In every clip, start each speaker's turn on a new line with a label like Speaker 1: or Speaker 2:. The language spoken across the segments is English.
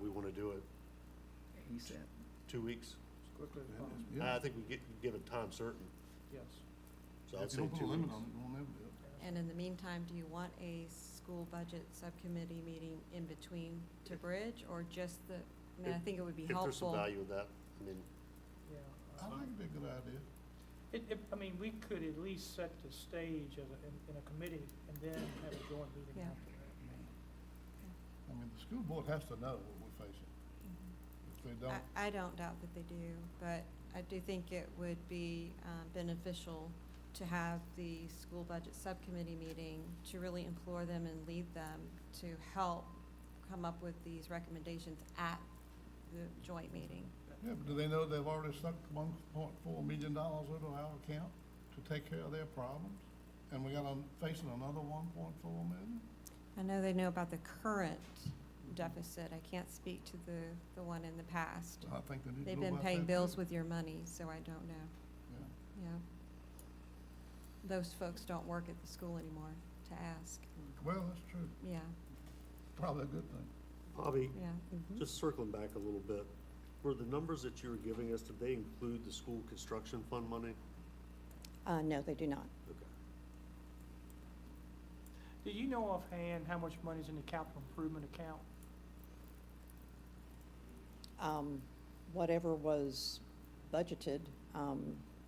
Speaker 1: we want to do it,
Speaker 2: He said,
Speaker 1: two weeks?
Speaker 3: Quickly as possible,
Speaker 1: I think we get, give it time certain,
Speaker 3: yes.
Speaker 1: so I'd say two
Speaker 4: If
Speaker 1: weeks.
Speaker 4: you don't put a limit on it, we'll never do it.
Speaker 5: And in the meantime, do you want a school budget subcommittee meeting in between to bridge or just the, I mean, I think it would be
Speaker 1: If there's some
Speaker 5: helpful.
Speaker 1: value in that, I mean,
Speaker 3: Yeah. uh,
Speaker 4: I think it'd be a good idea.
Speaker 3: It, it, I mean, we could at least set the stage as a, in, in a committee and then have a joint meeting
Speaker 5: Yeah.
Speaker 3: after that.
Speaker 4: I mean, the school board has to know what we're facing. If they don't,
Speaker 5: I, I don't doubt that they do, but I do think it would be um, beneficial to have the school budget subcommittee meeting to really implore them and lead them to help come up with these recommendations at the joint meeting.
Speaker 4: yeah, but do they know they've already sunk one point four million dollars into our account to take care of their problems? And we got on, facing another one point four million?
Speaker 5: I know they know about the current deficit. I can't speak to the, the one in the past.
Speaker 4: I think they need to
Speaker 5: They've
Speaker 4: know
Speaker 5: been
Speaker 4: about
Speaker 5: paying
Speaker 4: that,
Speaker 5: bills
Speaker 4: too.
Speaker 5: with your money, so I don't know,
Speaker 4: Yeah.
Speaker 5: yeah. Those folks don't work at the school anymore to ask,
Speaker 4: Well, that's true.
Speaker 5: yeah,
Speaker 4: Probably a good thing.
Speaker 1: Bobby,
Speaker 5: yeah. mhm.
Speaker 1: just circling back a little bit, were the numbers that you were giving us, did they include the school construction fund money?
Speaker 6: Uh, no, they do not.
Speaker 1: Okay.
Speaker 3: Do you know offhand how much money's in the capital improvement account?
Speaker 6: Um, whatever was budgeted, um,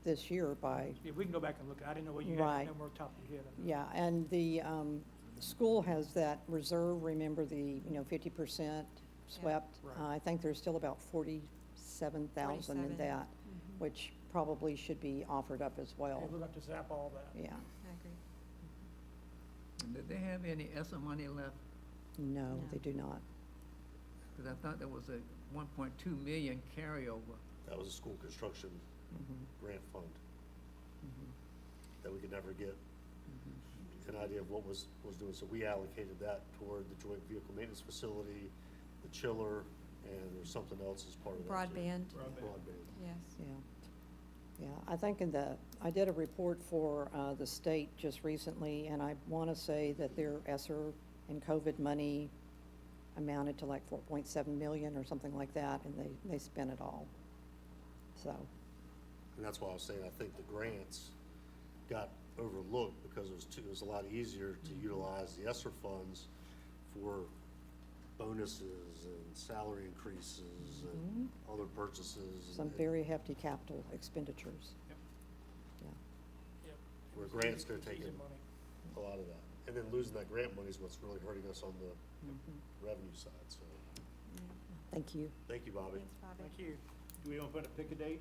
Speaker 6: this year by,
Speaker 3: Yeah, we can go back and look. I didn't know what you had, I
Speaker 6: Right.
Speaker 3: didn't know where top of your head.
Speaker 6: yeah, and the, um, school has that reserve, remember the, you know, fifty percent swept?
Speaker 3: Right.
Speaker 6: Uh, I think there's still about forty-seven thousand in
Speaker 5: 47.
Speaker 6: that,
Speaker 5: Mhm.
Speaker 6: which probably should be offered up as well,
Speaker 3: Yeah, We're gonna have to zap all that.
Speaker 6: yeah,
Speaker 5: I agree.
Speaker 2: and did they have any ESSER money left?
Speaker 6: no,
Speaker 5: No.
Speaker 6: they do not.
Speaker 2: Because I thought there was a one point two million carryover.
Speaker 1: That was a school construction grant fund that we could never get an idea of what was, was doing. So we allocated that toward the joint vehicle maintenance facility, the chiller, and there's something else as part of that. too.
Speaker 5: Broadband,
Speaker 1: Broadband.
Speaker 5: yes.
Speaker 6: Yeah. Yeah, I think in the, I did a report for uh, the state just recently, and I want to say that their ESSER and COVID money amounted to like 4.7 million or something like that, and they, they spent it all. So,
Speaker 1: And that's why I was saying, I think the grants got overlooked because it was too, it was a lot easier to
Speaker 5: Mm-hmm.
Speaker 1: utilize the ESSER funds for bonuses and salary increases and
Speaker 5: Mm-hmm.
Speaker 1: other purchases. and-
Speaker 6: some very hefty capital expenditures.
Speaker 1: Where grants could take
Speaker 3: Easy
Speaker 1: in
Speaker 3: money.
Speaker 1: a lot of that. And then losing that grant money is what's really hurting us on the
Speaker 5: Mm-hmm.
Speaker 1: revenue side, so,
Speaker 6: Thank you.
Speaker 1: thank you, Bobby.
Speaker 5: Thanks, Bobby.
Speaker 3: Thank you.
Speaker 7: Do we want to put a pick a date?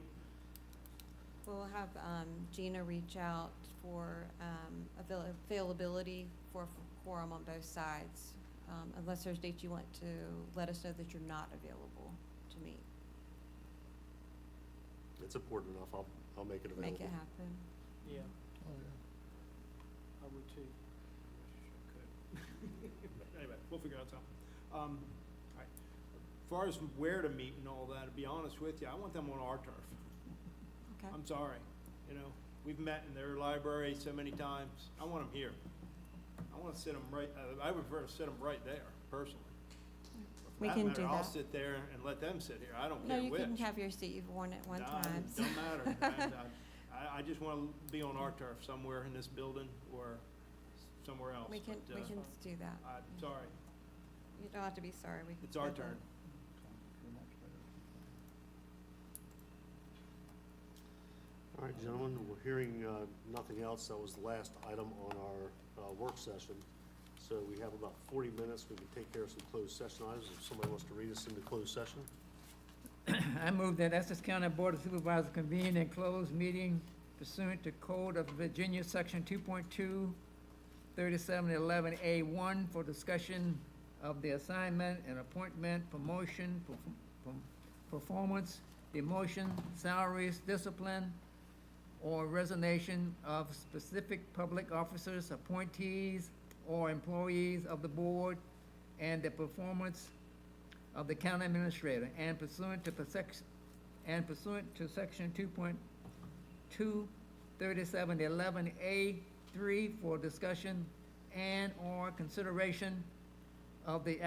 Speaker 5: We'll have um, Gina reach out for um, avail- availability for quorum on both sides, um, unless there's dates you want to let us know that you're not available to meet.
Speaker 1: It's important enough, I'll, I'll make it available.
Speaker 5: Make it happen.
Speaker 3: Yeah,
Speaker 4: Oh, yeah.
Speaker 3: I would too.
Speaker 7: Anyway, we'll figure out something. Um, all right. As Far as where to meet and all that, to be honest with you, I want them on our turf.
Speaker 5: Okay,
Speaker 7: I'm sorry, you know, we've met in their library so many times, I want them here. I want to sit them right, uh, I- I would prefer to sit them right there, personally.
Speaker 5: we
Speaker 7: That
Speaker 5: can
Speaker 7: matter,
Speaker 5: do
Speaker 7: I'll
Speaker 5: that.
Speaker 7: sit there and let them sit here, I don't
Speaker 5: No,
Speaker 7: care
Speaker 5: you
Speaker 7: which.
Speaker 5: can have your seat, you've worn it one
Speaker 7: Nah,
Speaker 5: time.
Speaker 7: it Don't matter. And, uh, I, I just want to be on our turf somewhere in this building or somewhere else.
Speaker 5: We can,
Speaker 7: but,
Speaker 5: we
Speaker 7: uh,
Speaker 5: can do that.
Speaker 7: I'm sorry,
Speaker 5: You don't have to be sorry, we can.
Speaker 7: it's our
Speaker 5: schedule it.
Speaker 7: turn.
Speaker 1: All right, gentlemen, we're hearing uh, nothing else. That was the last item on our uh, work session. So we have about 40 minutes. We can take care of some closed session items if somebody wants to read us into closed session.
Speaker 2: I move that Essex County Board of Supervisors convene and close meeting pursuant to Code of Virginia, Section 2.2, 3711A1, for discussion of the assignment and appointment, promotion, perf- perf- performance, demotion, salaries, discipline, or resignation of specific public officers, appointees, or employees of the board, and the performance of the county administrator and pursuant to persec- and pursuant to section two point two thirty-seven eleven A three for discussion and/or consideration of the